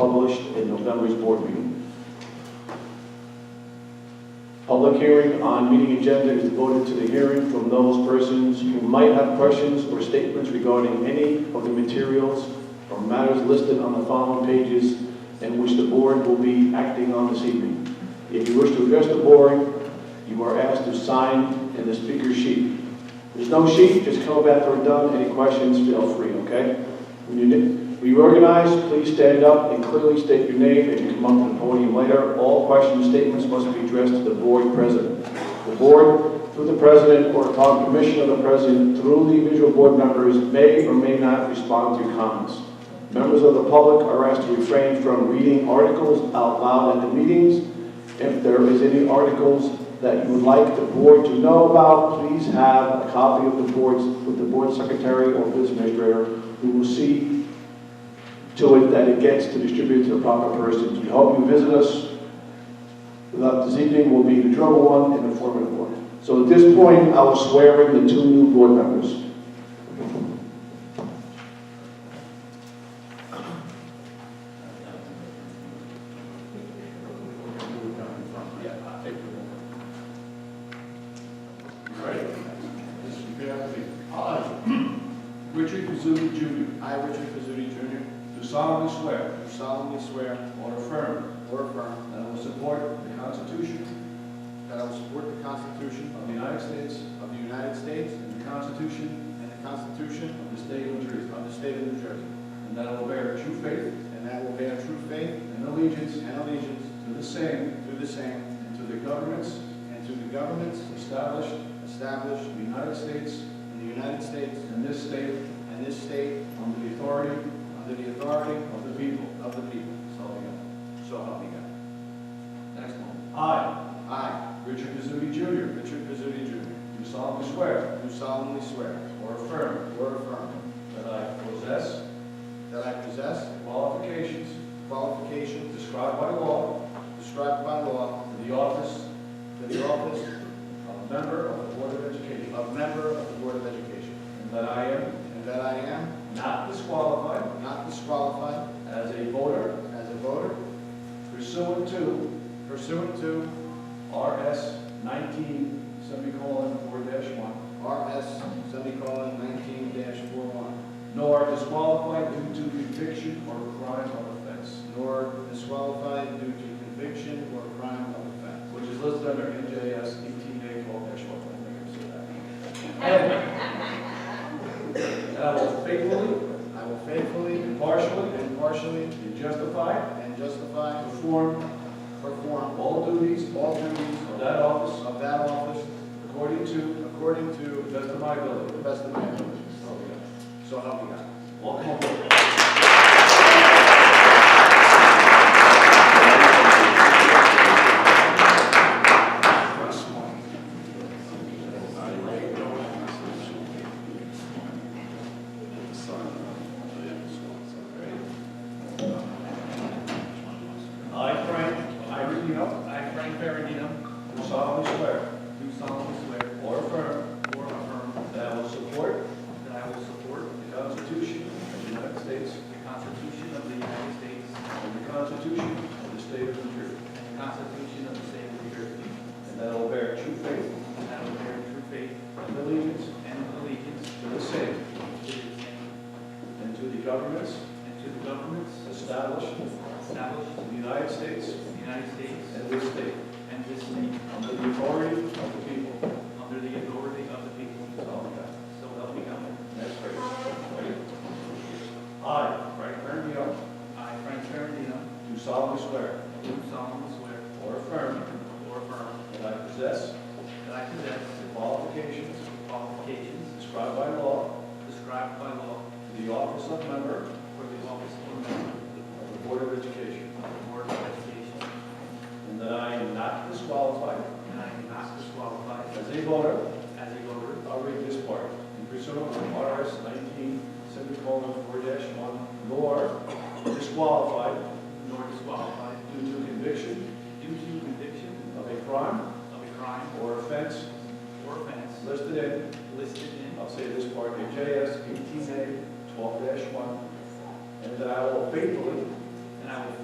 published in November's board meeting. Public hearing on meeting agenda is devoted to the hearing from those persons who might have questions or statements regarding any of the materials or matters listed on the following pages and which the board will be acting on this evening. If you wish to address the board, you are asked to sign in the speaker sheet. There's no sheet, just come up after we're done, any questions, feel free, okay? When you reorganize, please stand up and clearly state your name and you come up to the podium later. All question statements must be addressed to the board president. The board, through the president or upon permission of the president, through the individual board members, may or may not respond to your comments. Members of the public are asked to refrain from reading articles out loud at the meetings. If there is any articles that you would like the board to know about, please have a copy of the boards with the board secretary or business administrator who will see to it that it gets to distribute to the proper persons. We hope you visit us. Without this evening will be the trouble one and informative one. So at this point, I will swear in the two new board members. Right. Mr. Bailey. I, Richard Kazuti Jr., I, Richard Pizzuti Jr., do solemnly swear do solemnly swear or affirm or affirm that I will support the Constitution that I will support the Constitution of the United States of the United States and the Constitution and the Constitution of the State of New Jersey, of the State of New Jersey, and that I will bear true faith and that I will bear true faith and allegiance and allegiance to the same to the same and to the governments and to the governments established established in the United States in the United States and this state and this state under the authority under the authority of the people. of the people. So help me So help me God. God. Next one. I, I, Richard Kazuti Jr., Richard Pizzuti Jr., do solemnly swear do solemnly swear or affirm or affirm That I possess that I possess the qualifications qualifications described by law described by law for the office to the office of a member of the Board of Education, of member of the Board of Education, and that I am and that I am not disqualified not disqualified as a voter as a voter pursuant to pursuant to RS 19, semicolon, 4-1, RS semicolon nineteen dash four one, nor disqualified due to conviction or crime of offense, nor disqualified due to conviction or crime of offense, which is listed under NJS 18A 12-1. I think I said that. And I will faithfully, I will faithfully, impartially, impartially, and justify and justify, perform perform all duties all duties of that office of that office according to according the to best of my the ability. best of my ability. So help me God. Welcome aboard. I, Frank, I, Ferrandino, I, Frank Ferrandino, do solemnly swear, do solemnly swear, or affirm, or affirm, that I will support, that I will support the Constitution of the United States The Constitution of the United States and the Constitution of the State of New Jersey, and the Constitution of the State of New Jersey, and that I will bear true faith and that I will bear true faith and allegiance and allegiance to the same to the same and to the governments and to the governments established established in the United States in the United States and this state and this state under the authority of the people. under the authority of the people. So help me God. So help me God. Next phrase. Ready? I, Frank Ferrandino, I, Frank Ferrandino, do solemnly swear do solemnly swear or affirm or affirm that I possess that I possess the qualifications the qualifications prescribed by law described by law for the office of member for the office of member of the Board of Education, of the Board of Education, and that I am not disqualified and I am not disqualified as a voter, as a voter I'll read this part, in pursuant to RS 19, semicolon, 4-1, nor disqualified nor disqualified due to conviction due to conviction of a crime of a crime or offense or offense listed in listed in I'll say this part, JS eighteen A twelve one, and that I will faithfully, and I will